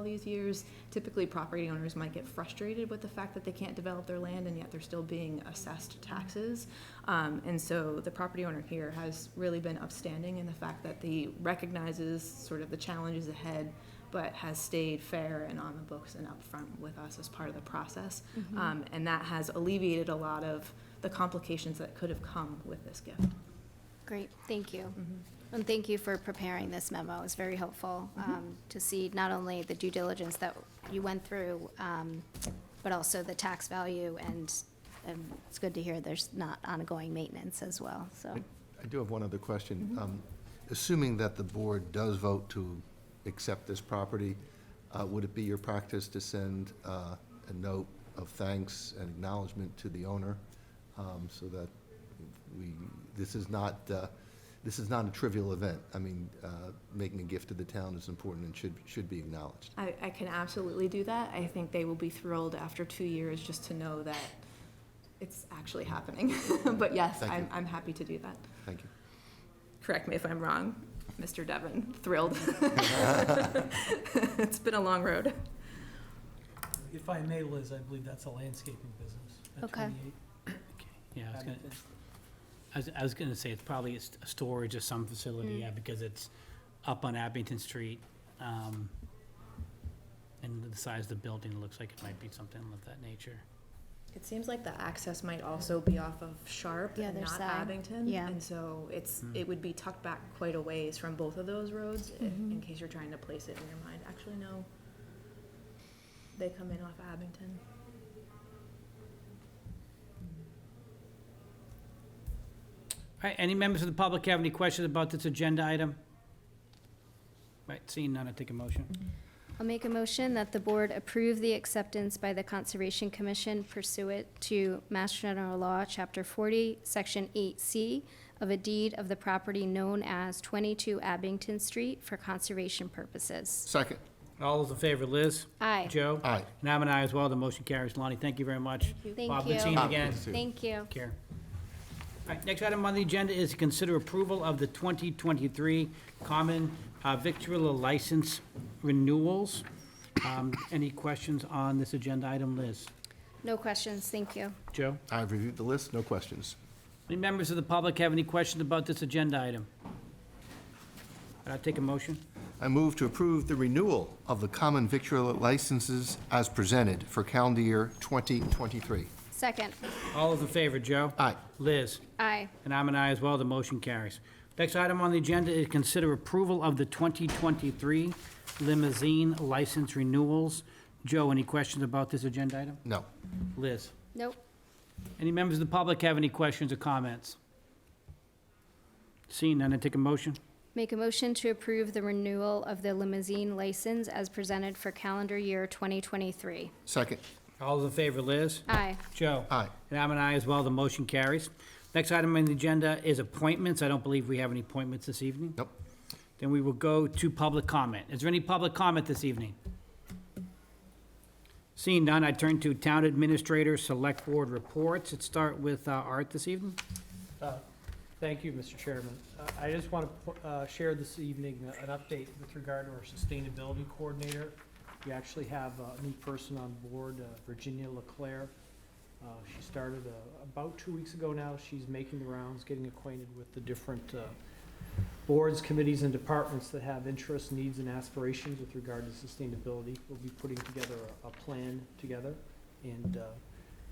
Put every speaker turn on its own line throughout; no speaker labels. these years, typically property owners might get frustrated with the fact that they can't develop their land and yet they're still being assessed taxes. Um, and so the property owner here has really been upstanding in the fact that they recognizes sort of the challenges ahead, but has stayed fair and on the books and upfront with us as part of the process. Um, and that has alleviated a lot of the complications that could have come with this gift.
Great, thank you. And thank you for preparing this memo. It's very helpful um, to see not only the due diligence that you went through, um, but also the tax value, and um, it's good to hear there's not ongoing maintenance as well, so.
I do have one other question. Um, Assuming that the board does vote to accept this property, uh, would it be your practice to send uh, a note of thanks and acknowledgement to the owner um, so that we, this is not, uh, this is not a trivial event? I mean, uh, making a gift to the town is important and should, should be acknowledged.
I, I can absolutely do that. I think they will be thrilled after two years just to know that it's actually happening. but yes,
Thank
I'm,
you.
I'm happy to do that.
Thank you.
Correct me if I'm wrong, Mr. Devon. Thrilled. it's been a long road.
If I may, Liz, I believe that's a landscaping business. at
Okay.
28
Yeah, I was gonna,
Abington.
I was, I was gonna say, it's probably a s- a storage of some facility,
Mm.
yeah, because it's up on Abington Street. um, And the size of the building looks like it might be something of that nature.
It seems like the access might also be off of Sharp
The
and
other
not
side,
Abington.
yeah.
And so it's
Hmm.
it would be tucked back quite a ways from both of those roads i- in case you're trying to place it in your mind. Actually, no. They come in off Abington.
All right, any members of the public have any questions about this agenda item? Right, seeing none, I take a motion.
I'll make a motion that the board approve the acceptance by the Conservation Commission pursuant to Mass General Law, Chapter 40, Section 8C, of a deed of the property known as 22 Abington Street for conservation purposes.
Second.
Mm-hmm. All those in favor, Liz?
Aye.
Joe?
Aye.
And I'm an aye as well, the motion carries. Lonnie, thank you very much.
Thank
Bob, good
you.
seeing you
Ah,
again.
good to see you.
Thank you.
Take care. All right, next item on the agenda is to consider approval of the 2023 common uh, victualler license renewals. Um, Any questions on this agenda item, Liz?
No questions, thank you.
Joe?
I've reviewed the list, no questions.
Any members of the public have any questions about this agenda item? I'll take a motion.
I move to approve the renewal of the common victual licenses as presented for calendar year 2023.
Second,
All those in favor, Joe?
Aye.
Liz?
aye.
And I'm an aye as well, the motion carries. Next item on the agenda is consider approval of the 2023 limousine license renewals. Joe, any questions about this agenda item?
No.
Liz?
Nope,
Any members of the public have any questions or comments? Seeing none, I take a motion.
make a motion to approve the renewal of the limousine license as presented for calendar year 2023.
Second.
All those in favor, Liz?
Aye.
Joe?
Aye.
And I'm an aye as well, the motion carries. Next item on the agenda is appointments. I don't believe we have any appointments this evening.
Nope.
Then we will go to public comment. Is there any public comment this evening? Seeing none, I turn to Town Administrator Select Board Reports. Let's start with uh, Art this evening.
Uh, Thank you, Mr. Chairman. Uh, I just want to share this evening uh, an update with regard to our sustainability coordinator. We actually have uh, a new person on board, uh, Virginia Leclerc. Uh, She started uh, about two weeks ago now. She's making the rounds, getting acquainted with the different uh, boards, committees, and departments that have interests, needs, and aspirations with regard to sustainability. We'll be putting together a- a plan together, and uh,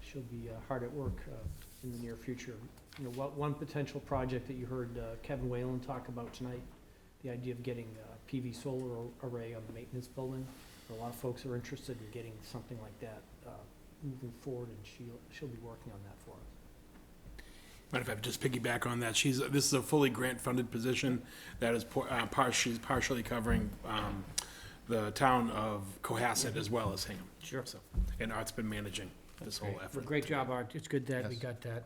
she'll be uh, hard at work uh, in the near future you know, what, one potential project that you heard uh, Kevin Whalen talk about tonight, the idea of getting a PV solar ar- array on the maintenance building. A lot of folks are interested in getting something like that uh, moving forward, and she'll, she'll be working on that for us.
But if I just piggyback on that, she's, this is a fully grant-funded position that is, por- uh, par- she's partially covering, um, the town of Cohasset as well as Hingham.
Sure.
So, And Art's been managing this whole effort.
Great job, Art. It's good that we
Yes.
got that,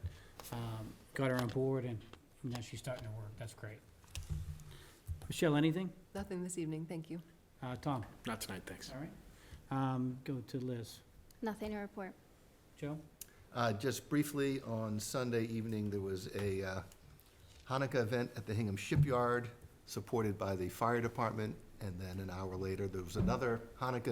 um, got her on board and now she's starting to work. That's great. Michelle, anything?
Nothing this evening, thank you.
Uh, Tom?
Not tonight, thanks.
All right. Um, go to Liz.
nothing to report.
Joe?
Uh, Just briefly, on Sunday evening, there was a uh, Hanukkah event at the Hingham Shipyard, supported by the fire department, and then an hour later, there was another Hanukkah